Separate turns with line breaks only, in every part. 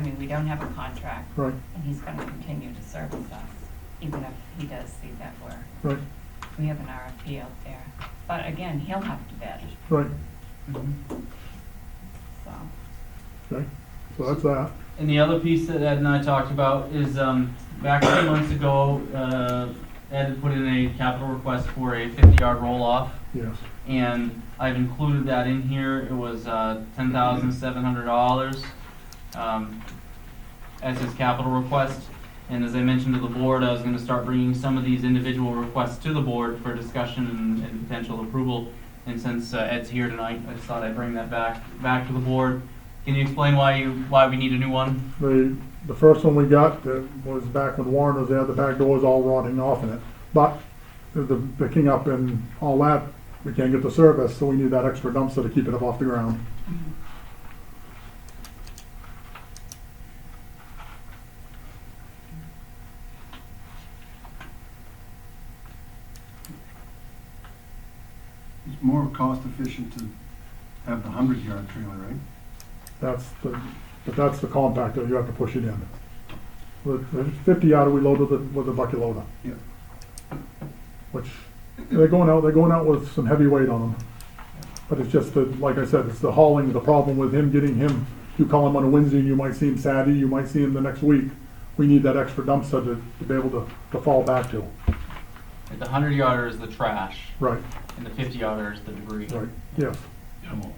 mean, we don't have a contract.
Right,
And he's gonna continue to service us, even if he does see that we're,
right,
we have an RFP out there. But again, he'll have to bid,
right,
so.
okay. So that's that.
And the other piece that Ed and I talked about is, um, back a few months ago, uh, Ed had put in a capital request for a fifty-yard roll-off,
Yes,
and I've included that in here, it was, uh, ten thousand seven hundred dollars, um, as his capital request. And as I mentioned to the board, I was gonna start bringing some of these individual requests to the board for discussion and, and potential approval. And since uh, Ed's here tonight, I just thought I'd bring that back, back to the board. Can you explain why you, why we need a new one?
the, the first one we got that was back when Warren was there, the back door was all rotting off in it. But the picking up and all that, we can't get the service, so we need that extra dumpster to keep it up off the ground.
It's more cost efficient to have the hundred yard trailer, right?
That's the, but that's the compactor, you have to push it in. With the fifty yard, we loaded it with a bucket loader.
Yeah.
Which, they're going out, they're going out with some heavy weight on them. But it's just that, like I said, it's the hauling, the problem with him, getting him, you call him on a Wednesday, you might see him Saturday, you might see him the next week. We need that extra dumpster to, to be able to, to fall back to.
The hundred yarder is the trash,
Right,
and the fifty yarder is the debris.
right, yes.
Come on.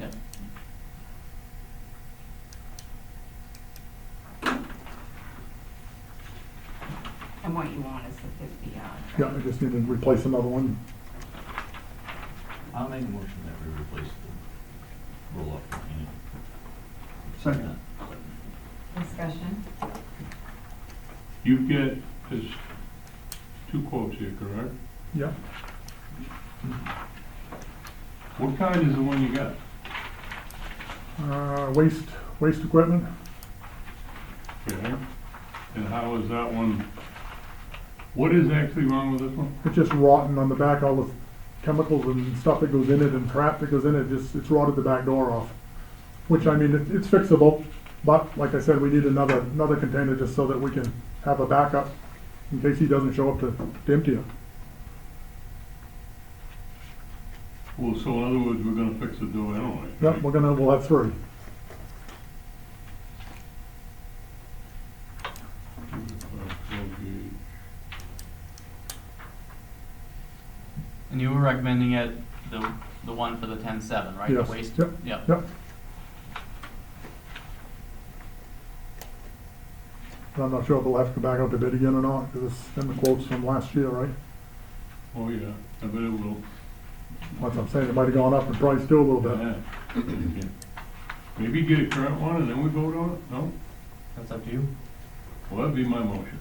Yeah.
And what you want is the fifty yard.
Yeah, I just need to replace another one.
I'll make a motion that we replace the roll-up unit.
Second,
Discussion?
You get, there's two quotes here, correct?
Yeah,
What kind is the one you got?
uh, waste, waste equipment,
Okay. And how is that one, what is actually wrong with this one?
it's just rotten on the back, all the chemicals and stuff that goes in it and crap that goes in it, just, it's rotted the back door off. Which, I mean, it- it's fixable, but like I said, we need another, another container just so that we can have a backup in case he doesn't show up to, to empty it.
Well, so in other words, we're gonna fix the door anyway.
Yep, we're gonna, we'll have three.
Okay.
And you were recommending it, the, the one for the ten-seven, right? The
Yes.
waste-
Yep.
Yep.
Yep. And I'm not sure if we'll have to go back out to bid again or not, because it's in the quotes from last year, right?
Oh, yeah, I bet it will.
That's what I'm saying, it might have gone up in price too a little bit.
Yeah. Okay. Maybe get a current one and then we vote on it? No?
That's up to you.
Well, that'd be my motion.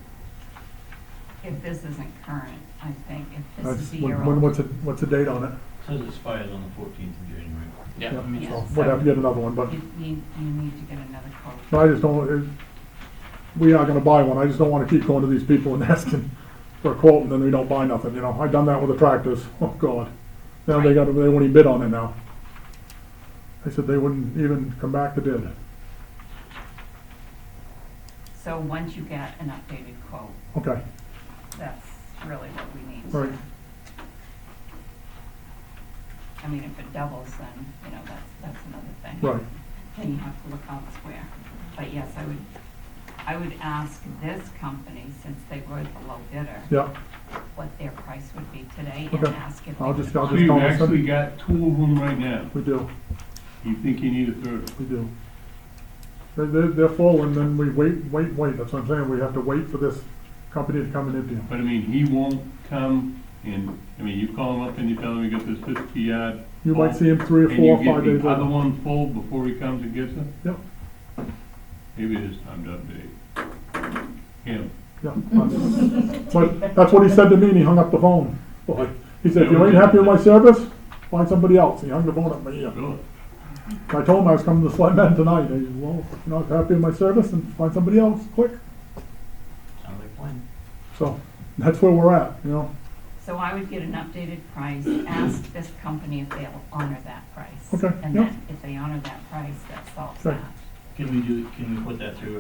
If this isn't current, I think, if this
That's,
is a E
when,
year
when- what's
old.
it, what's the date on it?
Says it expires on the fourteenth of January.
Yeah.
Yeah.
I mean,
Yeah.
So We'd have to get another one, but,
You need, you need to get another
no,
quote.
I just don't, it, we are gonna buy one, I just don't wanna keep going to these people and asking for a quote, and then we don't buy nothing, you know, I've done that with the tractors, oh god. Now they
Right.
got, they won't even bid on it now. They said they wouldn't even come back to bid,
So once you get an updated quote,
okay,
that's really what we need.
all right,
I mean, if it doubles, then, you know, that's, that's another thing.
right,
then you have to look elsewhere. But yes, I would, I would ask this company, since they were the low bidder,
yeah,
what their price would be today and
Okay.
ask if they
I'll
would
just- I'll
want-
So
just-
you've
call us
actually got two of them right now.
we do,
You think you need a third?
we do. They're, they're, they're full, and then we wait, wait, wait, that's what I'm saying, we have to wait for this company to come and empty them,
But I mean, he won't come and, I mean, you call him up and you tell him you got this fifty yard.
you might
full,
see them three or
and
four, or
you get
five
the
days
Other
later,
one full before he comes and gets it?
Yep.
Maybe it is time to update. Him.
yeah. that's- But, that's what he said to me, and he hung up the phone, Boy, he said, if you ain't happy with my service, find somebody else, he hung the phone up my ear.
Really?
I told him I was coming to the selectmen tonight, I said, well, if you're not happy with my service, then find somebody else, quick,
Sounds like one.
so, that's where we're at, you know,
So I would get an updated price, ask this company if they'll honor that price.
Okay,
And
yeah.
then if they honor that price, that solves
Right.
that.
Can we do, can we put that through